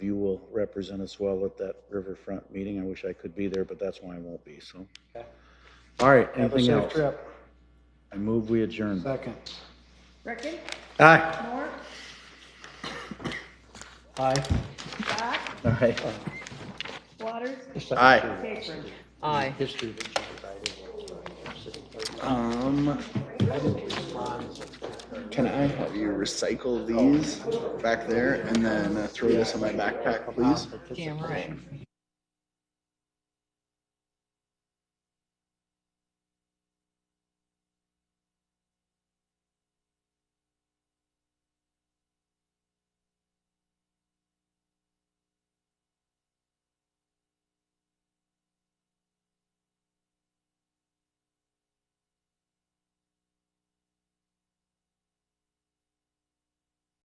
represent us well at that riverfront meeting. I wish I could be there, but that's why I won't be, so. All right, Have a anything safe else? trip. I move we adjourn. Second. Reckon, Aye. Moore, Aye. Doc, All right. Waters, Aye. Capron. Aye. History that you provided was, uh, city clerk. Um, Can I have you recycle these back there and then uh, throw this in my backpack, please? Damn right.